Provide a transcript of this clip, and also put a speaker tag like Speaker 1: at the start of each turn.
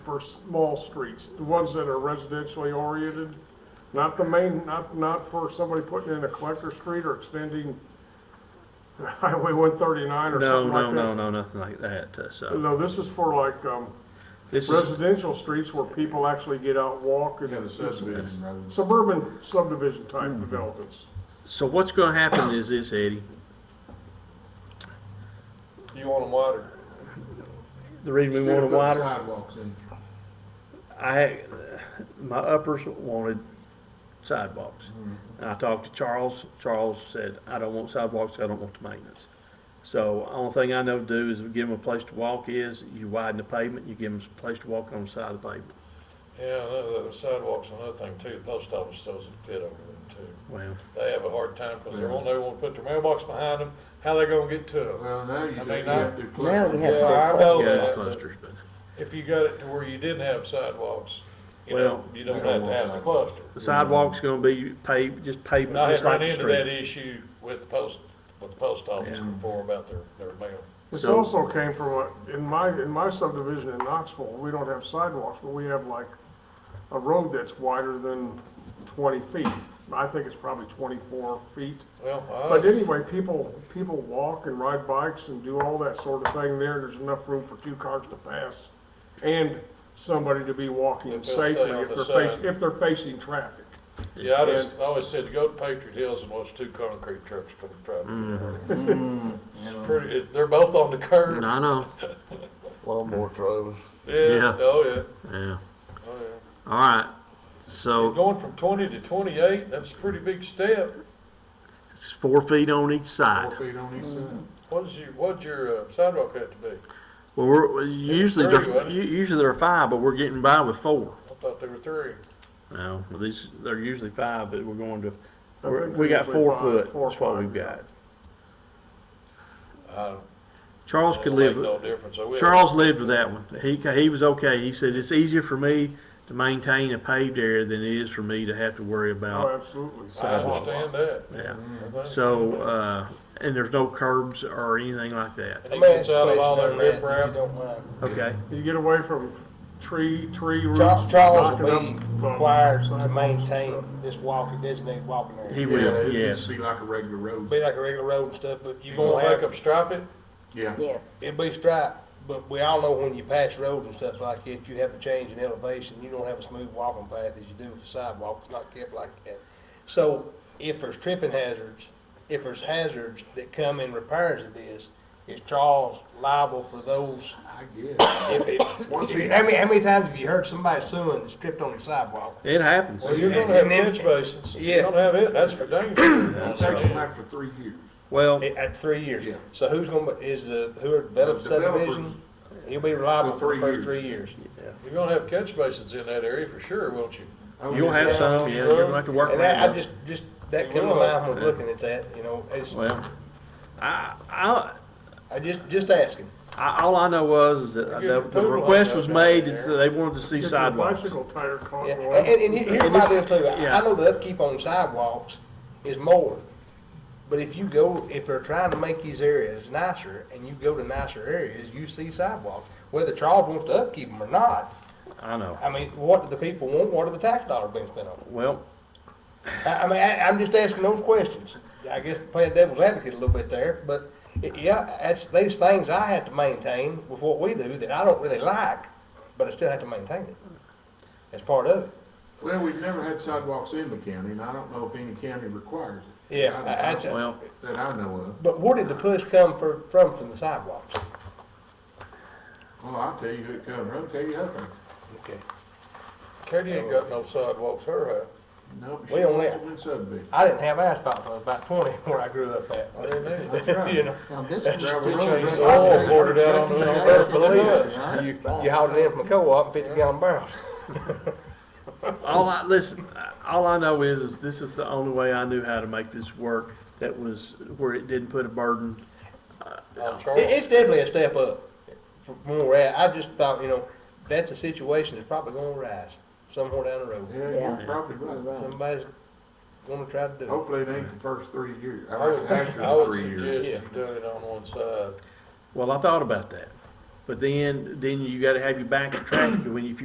Speaker 1: for small streets, the ones that are residentially oriented, not the main, not, not for somebody putting in a collector street or extending Highway one thirty-nine or
Speaker 2: No,
Speaker 1: something
Speaker 2: no,
Speaker 1: like
Speaker 2: no,
Speaker 1: that.
Speaker 2: no, nothing like that, uh, so.
Speaker 1: No, this is for like, um,
Speaker 2: This is,
Speaker 1: residential streets where people actually get out, walk and.
Speaker 3: Yeah, the subdivision Hmm. rather than.
Speaker 1: Suburban subdivision type developments.
Speaker 2: so what's gonna happen is this, Eddie,
Speaker 4: You want them wider.
Speaker 2: the reason we
Speaker 3: Instead
Speaker 2: want
Speaker 3: of
Speaker 2: them
Speaker 3: putting
Speaker 2: wider,
Speaker 3: Sidewalks in.
Speaker 2: I, my uppers wanted sidewalks. And I talked to Charles, Charles said, I don't want sidewalks, I don't want the maintenance. So only thing I know to do is give them a place to walk is, you widen the pavement, you give them a place to walk on the side of the pavement.
Speaker 4: Yeah, the the sidewalks, another thing too, the post office doesn't fit over them too.
Speaker 2: Well,
Speaker 4: They have a hard time because they won't, they won't put their mailbox behind them. How they gonna get to them?
Speaker 3: Well, now you
Speaker 4: I mean,
Speaker 3: do, you
Speaker 4: now-
Speaker 3: have to cluster.
Speaker 5: Now we have-
Speaker 4: Yeah, I know
Speaker 2: yeah, the
Speaker 4: that. but
Speaker 2: clusters, but
Speaker 4: If you got it to where you didn't have sidewalks, you
Speaker 2: Well,
Speaker 4: know, you don't
Speaker 3: we don't
Speaker 4: have to
Speaker 3: want
Speaker 4: have the cluster.
Speaker 2: the sidewalk's gonna be paved, just
Speaker 4: And I
Speaker 2: pavement,
Speaker 4: had
Speaker 2: just like
Speaker 4: run
Speaker 2: the
Speaker 4: into
Speaker 2: street.
Speaker 4: that issue with the post, with the post office
Speaker 2: Yeah.
Speaker 4: before about their, their mail.
Speaker 1: This
Speaker 2: So-
Speaker 1: also came from, a- in my, in my subdivision in Knoxville, we don't have sidewalks, but we have like a road that's wider than twenty feet. I think it's probably twenty-four feet.
Speaker 4: Well, I
Speaker 1: But anyway, people, people walk and ride bikes and do all that sort of thing there. There's enough room for two cars to pass and somebody to be walking
Speaker 4: If they'll
Speaker 1: safely
Speaker 4: stay on
Speaker 1: if
Speaker 4: the
Speaker 1: they're facing,
Speaker 4: side.
Speaker 1: if they're facing traffic.
Speaker 4: Yeah, I just, I always said to go to Patriot Hills and watch two concrete trucks come driving.
Speaker 2: Mm-hmm.
Speaker 4: It's pretty, it- they're both on the curb.
Speaker 2: I know,
Speaker 6: Lawnmower trailers.
Speaker 4: Yeah,
Speaker 2: Yeah.
Speaker 4: oh, yeah,
Speaker 2: yeah.
Speaker 4: oh, yeah.
Speaker 2: All right,
Speaker 4: He's
Speaker 2: so
Speaker 4: going from twenty to twenty-eight, that's a pretty big step.
Speaker 2: it's four feet on each side.
Speaker 3: Four feet on each side.
Speaker 4: What's your, what's your uh, sidewalk have to be?
Speaker 2: Well, we're, usually,
Speaker 4: three,
Speaker 2: there-
Speaker 4: wasn't
Speaker 2: u- usually there are five, but we're getting by with four.
Speaker 4: I thought there were three.
Speaker 2: No, well, these, they're usually five, but we're going to,
Speaker 1: I
Speaker 2: we're-
Speaker 1: think
Speaker 2: we
Speaker 1: they're
Speaker 2: got
Speaker 1: usually
Speaker 2: four
Speaker 1: five,
Speaker 2: foot,
Speaker 1: four or
Speaker 2: that's what
Speaker 1: five,
Speaker 2: we've
Speaker 1: yeah.
Speaker 2: got.
Speaker 4: I don't-
Speaker 2: Charles
Speaker 4: it
Speaker 2: could
Speaker 4: don't
Speaker 2: live,
Speaker 4: make No difference, I will.
Speaker 2: Charles lived with that one. He, ca- he was okay. He said, it's easier for me to maintain a paved area than it is for me to have to worry
Speaker 1: Oh,
Speaker 2: about.
Speaker 1: absolutely.
Speaker 4: I understand that.
Speaker 2: Yeah,
Speaker 4: I think.
Speaker 2: so, uh, and there's no curbs or anything like that,
Speaker 4: He gets out of all that riff raff.
Speaker 2: okay?
Speaker 1: You get away from tree, tree roots.
Speaker 5: Charles, Charles
Speaker 1: knocking
Speaker 5: will
Speaker 1: up,
Speaker 5: be
Speaker 1: um,
Speaker 5: required to
Speaker 1: sidewalks and
Speaker 5: maintain
Speaker 1: stuff.
Speaker 5: this walking, designated walking
Speaker 2: He
Speaker 5: area.
Speaker 3: Yeah,
Speaker 2: will,
Speaker 3: it needs
Speaker 2: yes.
Speaker 3: to be like a regular
Speaker 5: Be
Speaker 3: road.
Speaker 5: like a regular road and stuff, but
Speaker 4: You
Speaker 5: you're
Speaker 4: gonna
Speaker 5: gonna
Speaker 4: make
Speaker 5: have,
Speaker 4: them strip it?
Speaker 3: Yeah.
Speaker 7: Yes,
Speaker 5: it'll be striped, but we all know when you pass roads and stuff like that, you have a change in elevation, you don't have a smooth walking path as you do with the sidewalk, it's not kept like that. So if there's tripping hazards, if there's hazards that come in repairs of this, is Charles liable for those?
Speaker 3: I guess.
Speaker 5: If it,
Speaker 3: Once he-
Speaker 5: how many, how many times have you heard somebody suing that's tripped on the sidewalk?
Speaker 2: It happens.
Speaker 4: Well, you're
Speaker 5: And-
Speaker 4: gonna have
Speaker 5: and then-
Speaker 4: catch basins. You're
Speaker 5: Yeah.
Speaker 4: gonna have it, that's for dang
Speaker 3: It
Speaker 4: sure.
Speaker 3: takes them after three years.
Speaker 2: Well,
Speaker 5: At- At three years.
Speaker 3: Yeah.
Speaker 5: So who's gonna, be is the, who are developed
Speaker 3: The developers-
Speaker 5: subdivision, he'll be reliable for the
Speaker 3: For three
Speaker 5: first three years.
Speaker 4: You're gonna have catch basins in that area for sure, won't you?
Speaker 3: Oh,
Speaker 2: you'll have
Speaker 3: yeah.
Speaker 2: some, yeah, you're gonna have to work around
Speaker 5: And I, I
Speaker 2: it.
Speaker 5: just, just, that come to mind when looking at that, you know, it's,
Speaker 2: Well, I, I,
Speaker 5: I just, just asking.
Speaker 2: I, all I know was is that
Speaker 4: You get your
Speaker 2: the, the
Speaker 4: poodle
Speaker 2: request
Speaker 4: out
Speaker 2: was
Speaker 4: there.
Speaker 2: made that they wanted to see
Speaker 1: Get your
Speaker 2: sidewalks.
Speaker 1: bicycle tire caught
Speaker 5: Yeah,
Speaker 1: going.
Speaker 5: and, and he- here's
Speaker 2: And
Speaker 5: my deal
Speaker 2: it's-
Speaker 5: too, I-
Speaker 2: yeah.
Speaker 5: I know the upkeep on sidewalks is more, but if you go, if they're trying to make these areas nicer, and you go to nicer areas, you see sidewalks, whether Charles wants to upkeep them or not,
Speaker 2: I know.
Speaker 5: I mean, what do the people want, what are the tax dollars being spent on? it?
Speaker 2: Well,
Speaker 5: I, I mean, I, I'm just asking those questions. I guess playing devil's advocate a little bit there, but y- yeah, that's these things I have to maintain with what we do that I don't really like, but I still have to maintain it. That's part of it.
Speaker 3: Well, we've never had sidewalks in the county, and I don't know if any county requires it.
Speaker 5: Yeah,
Speaker 3: I-
Speaker 5: I-
Speaker 3: I-
Speaker 5: that's-
Speaker 2: well,
Speaker 3: That I know of.
Speaker 5: But where did the push come for, from from the sidewalks?
Speaker 3: Well, Oh, I'll tell you who it comes from, I'll tell you nothing.
Speaker 5: Okay,
Speaker 4: Katie ain't got no sidewalks her
Speaker 3: Nope.
Speaker 5: We don't let-
Speaker 3: Washington subdivision.
Speaker 5: I didn't have asphalt until I was about twenty where I grew up at.
Speaker 4: house. They need.
Speaker 3: That's right.
Speaker 5: You know,
Speaker 6: Now, this was
Speaker 3: Gravel
Speaker 6: pitch
Speaker 3: road,
Speaker 6: raises
Speaker 3: gravel
Speaker 6: all
Speaker 4: road.
Speaker 6: the
Speaker 4: Poured it out on the-
Speaker 6: freaking
Speaker 4: That's what it
Speaker 6: road.
Speaker 4: is.
Speaker 5: you, you hauled it in from a co-op in fifty gallon barrels.
Speaker 2: all I, listen, all I know is, is this is the only way I knew how to make this work that was where it didn't put a burden.
Speaker 4: On
Speaker 5: It,
Speaker 4: Charles.
Speaker 5: it's definitely a step up from where we're at. I just thought, you know, that's a situation that's probably gonna arise somewhere down the road.
Speaker 3: Yeah, you're probably right.
Speaker 5: Somebody's gonna try to do
Speaker 3: Hopefully it ain't the first three years,
Speaker 4: I would,
Speaker 3: after
Speaker 4: I
Speaker 3: the
Speaker 4: would
Speaker 3: three years.
Speaker 4: suggest you do it on one side.
Speaker 2: Well, I thought about that. But then, then you gotta have your back to traffic, when, if you